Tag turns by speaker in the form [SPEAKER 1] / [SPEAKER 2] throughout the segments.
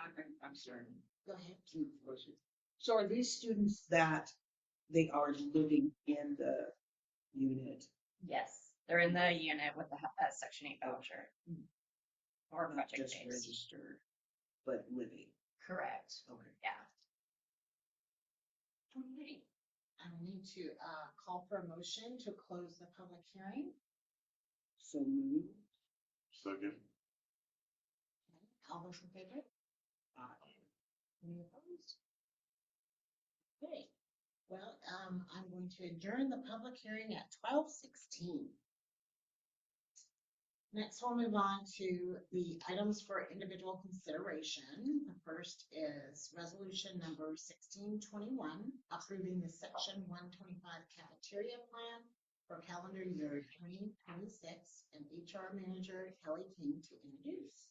[SPEAKER 1] I'm, I'm sorry.
[SPEAKER 2] Go ahead, please, Rosie. So are these students that they are living in the unit?
[SPEAKER 3] Yes, they're in the unit with the he- uh, section eight voucher. Or
[SPEAKER 2] not
[SPEAKER 3] project
[SPEAKER 2] just
[SPEAKER 3] based.
[SPEAKER 2] Registered, but living,
[SPEAKER 3] Correct,
[SPEAKER 2] okay.
[SPEAKER 3] yeah.
[SPEAKER 1] I need to, uh, call for a motion to close the public hearing.
[SPEAKER 2] So move,
[SPEAKER 4] Second.
[SPEAKER 1] All those in favor? Any opposed? Okay, well, um, I'm going to adjourn the public hearing at twelve sixteen. Next, we'll move on to the items for individual consideration. The first is resolution number sixteen twenty-one, approving the section one twenty-five cafeteria plan for calendar year twenty twenty-six, and HR manager Kelly King to introduce.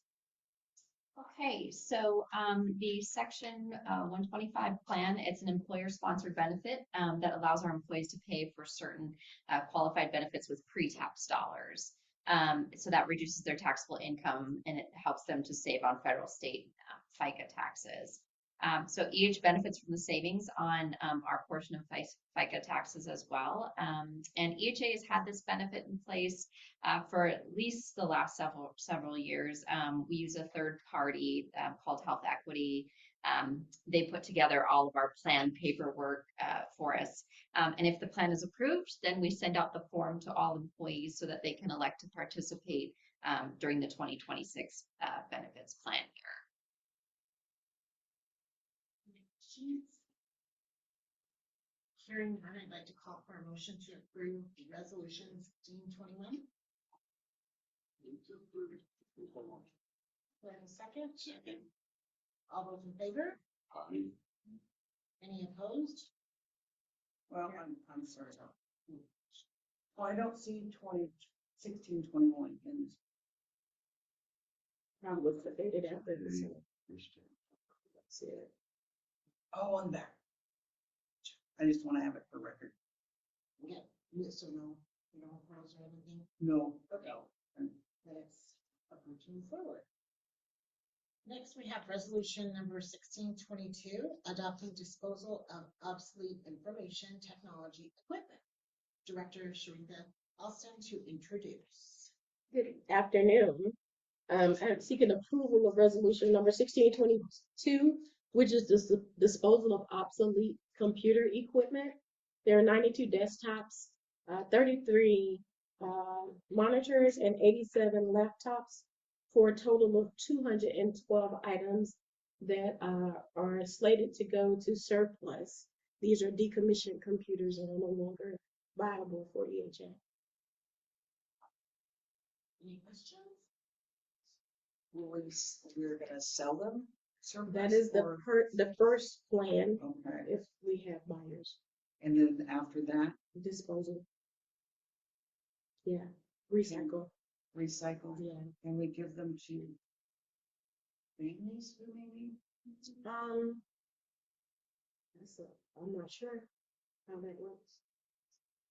[SPEAKER 3] Okay, so um, the section uh, one twenty-five plan, it's an employer-sponsored benefit um, that allows our employees to pay for certain uh, qualified benefits with pre-tax dollars. Um, so that reduces their taxable income and it helps them to save on federal, state, uh, FICA taxes. Um, so EH benefits from the savings on um, our portion of FICE- FICA taxes as well. Um, and EHA has had this benefit in place uh, for at least the last several several years. Um, we use a third party uh, called Health Equity. Um, they put together all of our plan paperwork uh, for us, um, and if the plan is approved, then we send out the form to all employees so that they can elect to participate um, during the 2026 uh, benefits plan year.
[SPEAKER 1] Hearing none, I'd like to call for a motion to approve the resolution sixteen twenty-one. Do I have a second?
[SPEAKER 4] Second.
[SPEAKER 1] All those in favor?
[SPEAKER 4] Aye.
[SPEAKER 1] Any opposed?
[SPEAKER 2] well, I'm, I'm sorry. Well, I don't see twenty, sixteen, twenty-one in this.
[SPEAKER 5] Now look at it, it happens. See it.
[SPEAKER 2] Oh, on there. I just wanna have it for record.
[SPEAKER 1] Yeah, yes or no? No opposed or anything?
[SPEAKER 2] No,
[SPEAKER 1] Okay. That's a motion forward. Next, we have resolution number sixteen twenty-two, adopting disposal of obsolete information technology equipment. Director Sharita Austin to introduce.
[SPEAKER 5] Good afternoon. Um, I'm seeking approval of resolution number sixteen twenty-two, which is dis- disposal of obsolete computer equipment. There are ninety-two desktops, uh, thirty-three, uh, monitors and eighty-seven laptops for a total of two hundred and twelve items that, uh, are slated to go to surplus. These are decommissioned computers and are no longer viable for E EHA.
[SPEAKER 1] Any questions?
[SPEAKER 2] Well, we, s- we're gonna sell them?
[SPEAKER 5] That is the
[SPEAKER 2] Or-
[SPEAKER 5] per, the first plan,
[SPEAKER 2] Okay,
[SPEAKER 5] if we have buyers,
[SPEAKER 2] and then after that,
[SPEAKER 5] disposal. Yeah, recycle,
[SPEAKER 2] recycle,
[SPEAKER 5] yeah.
[SPEAKER 2] and we give them to families who maybe?
[SPEAKER 5] Um. That's, a- I'm not sure how that works.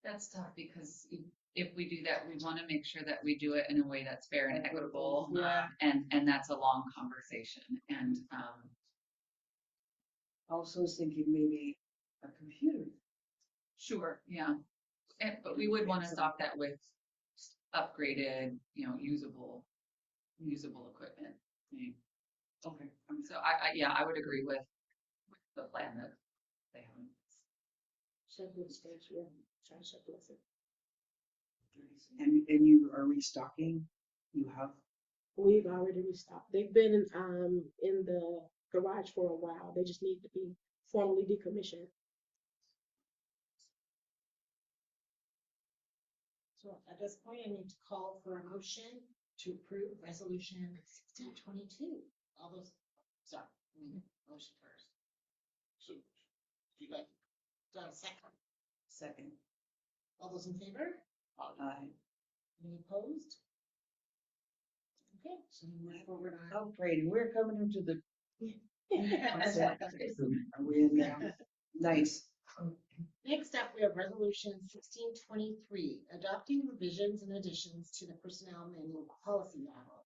[SPEAKER 6] That's tough because i- if we do that, we want to make sure that we do it in a way that's fair and equitable.
[SPEAKER 2] Yeah.
[SPEAKER 6] And, and that's a long conversation and, um,
[SPEAKER 2] Also was thinking maybe a computer.
[SPEAKER 6] sure, yeah. And, but we would want to stop that with upgraded, you know, usable, usable equipment. um,
[SPEAKER 2] Okay. I'm
[SPEAKER 6] So I, I, yeah, I would agree with, with the plan that they have.
[SPEAKER 5] Checklist, stage, yeah, try checklist.
[SPEAKER 2] sorry. And, and you are restocking, you have,
[SPEAKER 5] We've already restocked, they've been, in, um, in the garage for a while, they just need to be formally decommissioned.
[SPEAKER 1] So at this point, I need to call for a motion to approve resolution sixteen twenty-two. All those, sorry, we need a motion first.
[SPEAKER 4] So,
[SPEAKER 1] Do you like, do I have a second?
[SPEAKER 2] second,
[SPEAKER 1] All those in favor?
[SPEAKER 2] I,
[SPEAKER 1] Any opposed? Okay, so we move forward on.
[SPEAKER 2] oh, Brady, we're coming into the,
[SPEAKER 1] Next
[SPEAKER 2] are we in now? Nice.
[SPEAKER 1] up, we have resolution sixteen twenty-three, adopting revisions and additions to the personnel manual policy model.